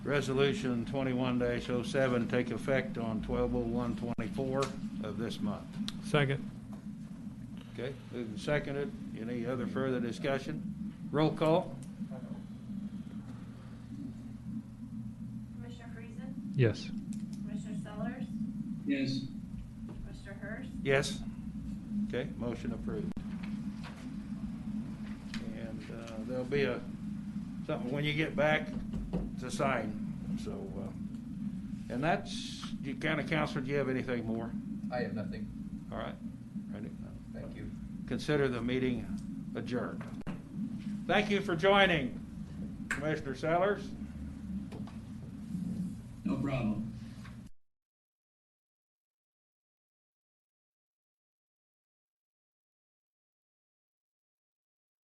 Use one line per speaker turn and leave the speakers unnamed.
Resolution twenty-one 7 take effect on twelve oh one twenty-four of this month.
Second.
Okay, moved and seconded. Any other further discussion? Roll call?
Commissioner Friesen,
Yes.
Commissioner Sellers,
yes,
Mr. Hurst,
Yes. Okay, motion approved. And uh, there'll be a, something when you get back to sign, so. uh, And that's, you county council, do you have anything more?
I have nothing.
All right. Ready?
Thank you.
Consider the meeting adjourned. Thank you for joining, Commissioner Sellers.
no problem.